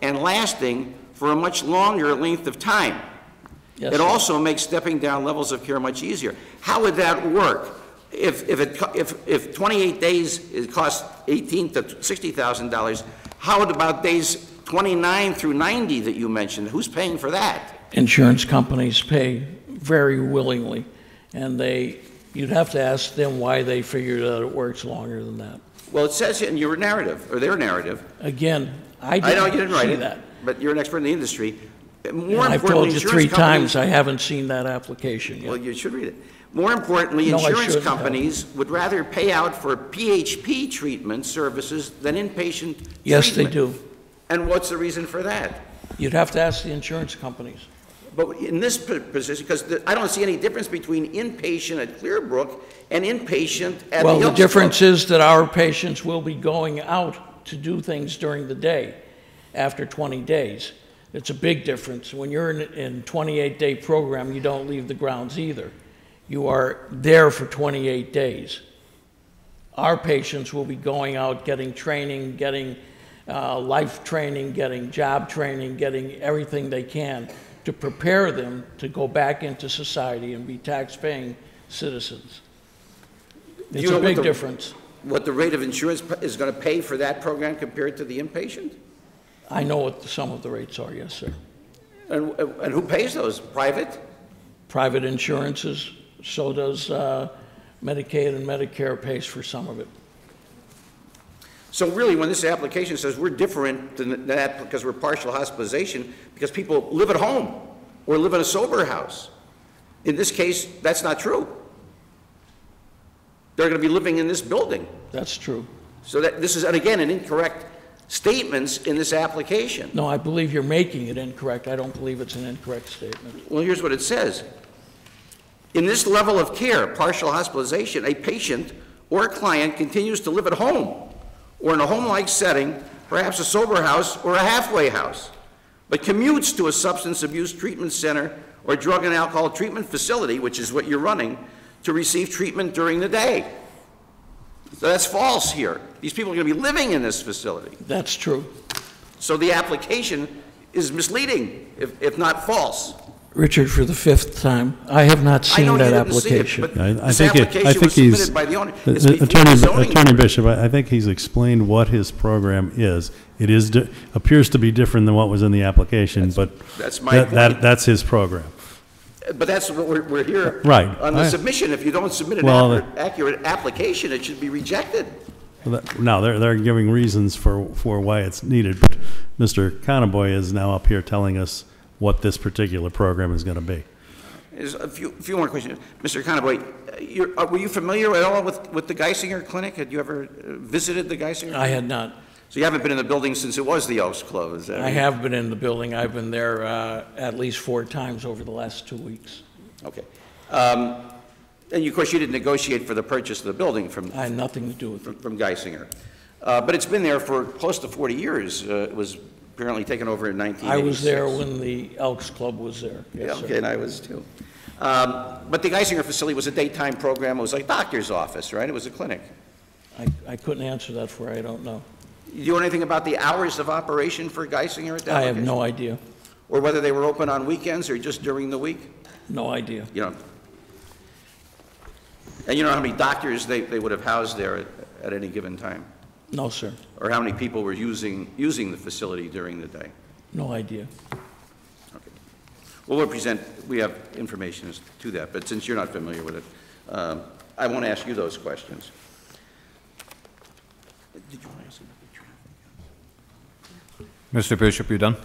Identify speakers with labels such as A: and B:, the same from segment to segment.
A: and lasting for a much longer length of time.
B: Yes,
A: It
B: sir.
A: also makes stepping down levels of care much easier. How would that work? If, if it, co- if, if 28 days, it costs 18 to $60,000, how about days 29 through 90 that you mentioned? Who's paying for that?
B: Insurance companies pay very willingly, and they, you'd have to ask them why they figured out it works longer than that.
A: Well, it says it in your narrative, or their narrative.
B: Again, I
A: I know
B: didn't
A: you didn't write
B: see
A: it,
B: that.
A: but you're an expert in the industry. More
B: And I've told
A: importantly,
B: you
A: insurance
B: three times,
A: companies...
B: I haven't seen that application
A: Well,
B: yet.
A: you should read it. More importantly,
B: No, I
A: insurance
B: shouldn't have.
A: companies would rather pay out for PHP treatment services than inpatient treatment.
B: Yes, they do.
A: And what's the reason for that?
B: You'd have to ask the insurance companies.
A: But in this p- position, because I don't see any difference between inpatient at Clearbrook and inpatient at the
B: Well, the
A: Elks Club.
B: difference is that our patients will be going out to do things during the day after 20 days. It's a big difference. When you're in in 28-day program, you don't leave the grounds either. You are there for 28 days. Our patients will be going out, getting training, getting uh, life training, getting job training, getting everything they can to prepare them to go back into society and be tax-paying citizens.
A: Do
B: It's
A: you know
B: a
A: what
B: big
A: the-
B: difference.
A: What the rate of insurance p- is going to pay for that program compared to the inpatient?
B: I know what some of the rates are, yes, sir.
A: And and who pays those? Private?
B: Private insurances, so does uh, Medicaid and Medicare pays for some of it.
A: So really, when this application says we're different than that because we're partial hospitalization, because people live at home or live in a sober house, in this case, that's not true. They're going to be living in this building.
B: That's true.
A: So that, this is, and again, an incorrect statements in this application.
B: No, I believe you're making it incorrect. I don't believe it's an incorrect statement.
A: Well, here's what it says. In this level of care, partial hospitalization, a patient or a client continues to live at home or in a home-like setting, perhaps a sober house or a halfway house, but commutes to a substance abuse treatment center or drug and alcohol treatment facility, which is what you're running, to receive treatment during the day. So that's false here. These people are going to be living in this facility.
B: That's true.
A: So the application is misleading, if, if not false.
B: Richard, for the fifth time, I have not
A: I know
B: seen
A: you
B: that
A: didn't see it,
B: application.
A: but
C: I I
A: This
C: think, it- I
A: application
C: think
A: was
C: he's,
A: submitted by the owner. It's
C: Uh,
A: before
C: Attorney,
A: the zoning.
C: Attorney Bishop, I I think he's explained what his program is. It is, di- appears to be different than what was in the application, but
A: that's my
C: that, that-
A: point.
C: that's his program.
A: But that's what we're, we're here.
C: Right.
A: On the
C: I-
A: submission, if you don't submit an
C: Well,
A: accurate, accurate application, it should be rejected.
C: No, they're, they're giving reasons for, for why it's needed, but Mr. Conboy is now up here telling us what this particular program is going to be.
A: There's a few, few more questions. Mr. Conboy, you're, uh, were you familiar at all with, with the Geisinger Clinic? Had you ever uh, visited the Geisinger?
B: I had not.
A: So you haven't been in the building since it was the Oaks Club, is that
B: I
A: right?
B: have been in the building. I've been there uh, at least four times over the last two weeks.
A: Okay. Um, And you- of course, you didn't negotiate for the purchase of the building from,
B: I had nothing to do with it.
A: from from Geisinger. Uh, But it's been there for close to 40 years. Uh, It was apparently taken over in
B: I
A: 1986.
B: was there when the Elks Club was there.
A: Yeah,
B: Yes, sir.
A: okay, and I was too. Um, But the Geisinger facility was a daytime program, it was like doctor's office, right? It was a clinic.
B: I, I couldn't answer that for, you. I don't know.
A: Do you know anything about the hours of operation for Geisinger at that
B: I have
A: location?
B: no idea,
A: Or whether they were open on weekends or just during the week?
B: no idea.
A: You know? And you know how many doctors they, they would have housed there at- at any given time?
B: No, sir,
A: Or how many people were using, using the facility during the day?
B: no idea.
A: Okay. Well, we'll present, we have information as to that, but since you're not familiar with it, um, I won't ask you those questions. Did you want to ask about the traffic?
D: Mr. Bishop, you done?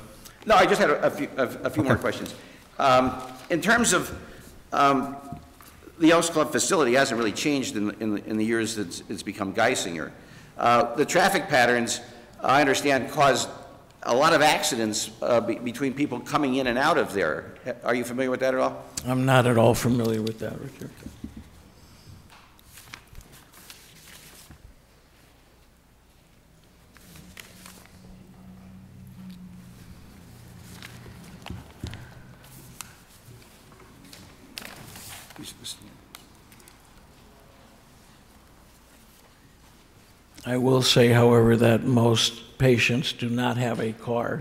A: No, I just had a a few, a a few more questions. Um, In terms of, um, the Elks Club facility hasn't really changed in, the- in the- in the years that it's- it's become Geisinger. Uh, The traffic patterns, I understand, caused a lot of accidents uh, be- between people coming in and out of there. Are you familiar with that at all?
B: I'm not at all familiar with that, Richard. I will say, however, that most patients do not have a car,